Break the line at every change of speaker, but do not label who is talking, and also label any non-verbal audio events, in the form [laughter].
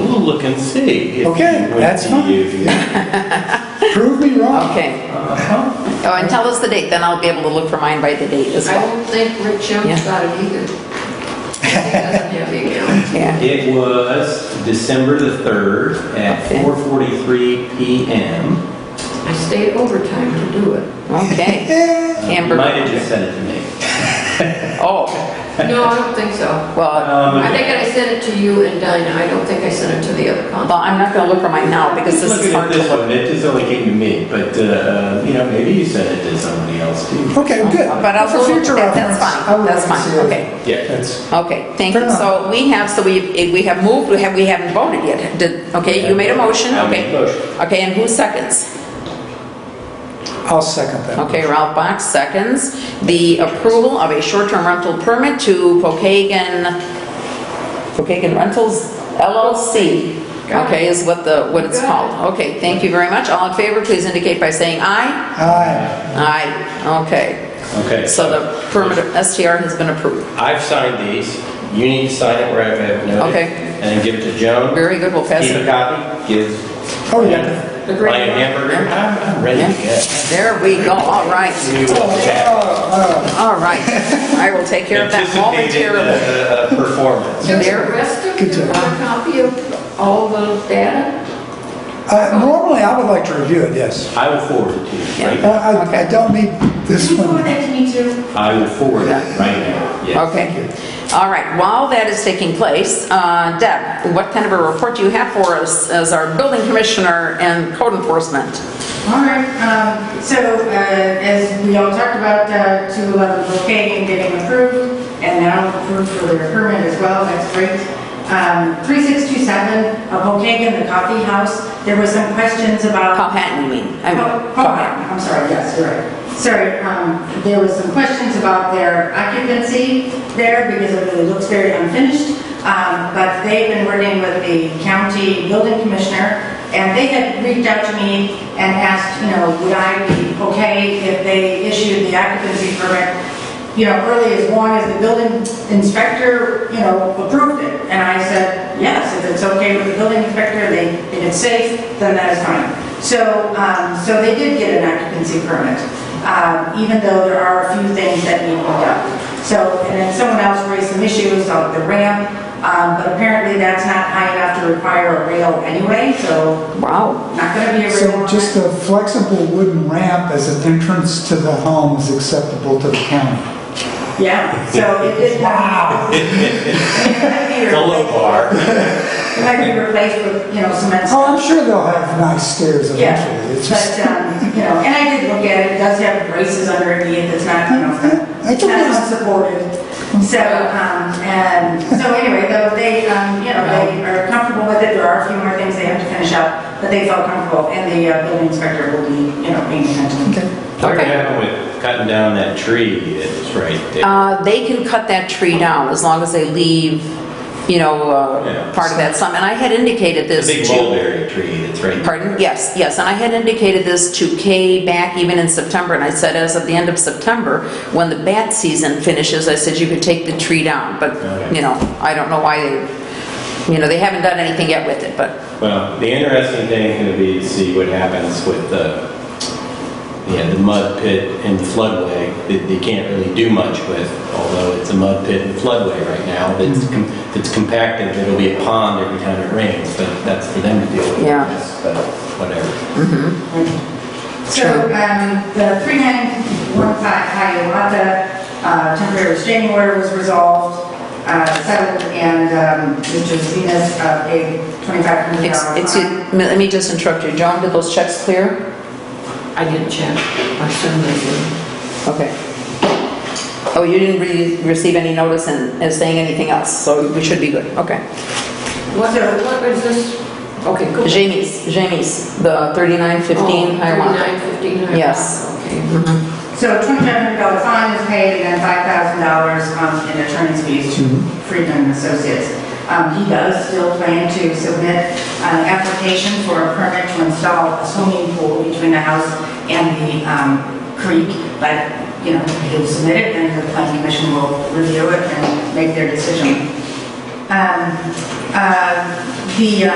look and see. if
Okay,
you would
that's
be-
fine.
if you-
Prove me wrong.
Okay.
Uh-huh.
Oh, and tell us the date, then I'll be able to look for mine by the date as
I
well.
don't think Rick Jones
Yeah.
got it either. He doesn't have
[laughs]
the account.
Yeah.
It was December the 3rd at
Okay.
4:43 PM.
I stayed overtime to do it.
Okay.
You might have
Hamburger.
just sent it to me.
Oh,
No, I don't think so.
well,
Um,
I think I sent it to you and Dinah. I don't think I sent it to the other
well,
contact.
I'm not going to look for mine now because this
Looking
is
at
hard to
this
look.
one, it just only came to me, but, uh, you know, maybe you sent it to somebody else too.
Okay, good.
But I'll
For
look-
future
that-
reference.
that's fine.
I would
That's
like to
fine.
see it.
Okay.
Yeah.
That's,
Okay, thank
Fair
you. So we have, so we, we have moved, we have, we haven't voted yet. Did, okay, you made a motion,
I made
okay.
a motion.
Okay, and who seconds?
I'll second that.
Okay, Ralph Box seconds. The approval of a short-term rental permit to Pokagon, Pokagon Rentals LLC.
Got it.
Okay, is what the, what it's
Got it.
called. Okay, thank you very much. All in favor, please indicate by saying aye.
Aye.
Aye, okay.
Okay.
So the permit of STR has been approved.
I've signed these. You need to sign it wherever I have noted.
Okay.
And then give it to Joan.
Very good, we'll pass
Keep a
it.
copy, give.
Oh, yeah.
The
Lion
green one.
hamburger. I'm I'm ready to get.
There we go, all right.
We will chat.
All right, I will take care of that
Anticipated
momentarily.
uh, uh, performance.
Does the
There.
rest of
Good
you
job.
have a copy of all the data?
Uh, Normally, I would like to review it, yes.
I will forward it to you right
Uh,
now.
I I don't need this
Can you forward
one.
that to me too?
I will forward it right now. Yes.
Okay, all right, while that is taking place, uh, Deb, what kind of a report do you have for us as our building commissioner and code enforcement?
All right, um, so, uh, as we all talked about, uh, 211 Brookhaven getting approved, and now approved for their permit as well, that's great. Um, 3627 of Brookhaven, the coffee house, there were some questions about.
Powhatan, you mean? I mean,
Oh, oh, I'm sorry, yes, you're right. Sorry, um, there was some questions about their occupancy there because it really looks very unfinished. Um, But they've been working with the county building commissioner, and they had reached out to me and asked, you know, would I be okay if they issued the occupancy permit you know, early as long as the building inspector, you know, approved it. And I said, yes, if it's okay with the building inspector, they, if it's safe, then that is fine. So, um, so they did get an occupancy permit, um, even though there are a few things that need to be done. So, and then someone else raised some issues on the ramp, um, but apparently that's not high enough to require a rail anyway, so
Wow,
not gonna be a rail.
So
on
just
it.
a flexible wooden ramp as an entrance to the home is acceptable to the county.
Yeah, so it did. [laughs] Wow.
It's a low bar.
It might be replaced with, you know, cement.
Oh, I'm sure they'll have nice stairs
Yeah,
eventually. It's
but,
just,
um, you know, and I did look at it, it does have braces underneath, it's not, you know,
I
it's
took
not
those-
unsupported. So, um, and, so anyway, though, they, um, you know, they are comfortable with it, there are a few more things they have to finish up, but they felt comfortable, and the uh, building inspector will be, you know, paying attention.
What
Okay.
happened with cutting down that tree that was right there?
Uh, they can cut that tree down as long as they leave, you know,
Yeah.
uh, part of that sum. And I had indicated
The
this to...
big mulberry tree that's right there.
Pardon? Yes, yes, and I had indicated this to Kay back even in September, and I said as of the end of September, when the bat season finishes, I said you could take the tree down, but,
Okay.
you know, I don't know why they, you know, they haven't done anything yet with it, but,
Well, the interesting thing is going to be to see what happens with the, yeah, the mud pit and floodway that they can't really do much with, although it's a mud pit and floodway right now that's, com- that's compacted, it'll be a pond every time it rains, but that's for them to deal with. I
Yeah.
guess, But whatever.
So, um, the 3915 Hiawatha uh, temporary restraining order was resolved, uh, settled, and um, Mr. Zenas uh, paid $2,500.
Ex-
fine.
excuse, let me just interrupt you, John, did those checks clear?
I didn't check. I assume they did.
Okay. Oh, you didn't re- receive any notice and, and saying anything else, so we should be good, okay.
What, uh, what is this? Okay, go.
Jamie's, Jamie's, the
Oh,
3915 Hiawatha.
3915 Hiawatha.
Yes.
Okay.
So $2,500 fine was paid, and then $5,000 um, in attorney's fees to Friedman and Associates. Um, He does still plan to submit an application for a permit to install a swimming pool between the house and the um, creek, but, you know, he'll submit it, and the planning commission will review it and make their decision. Um, uh, The uh,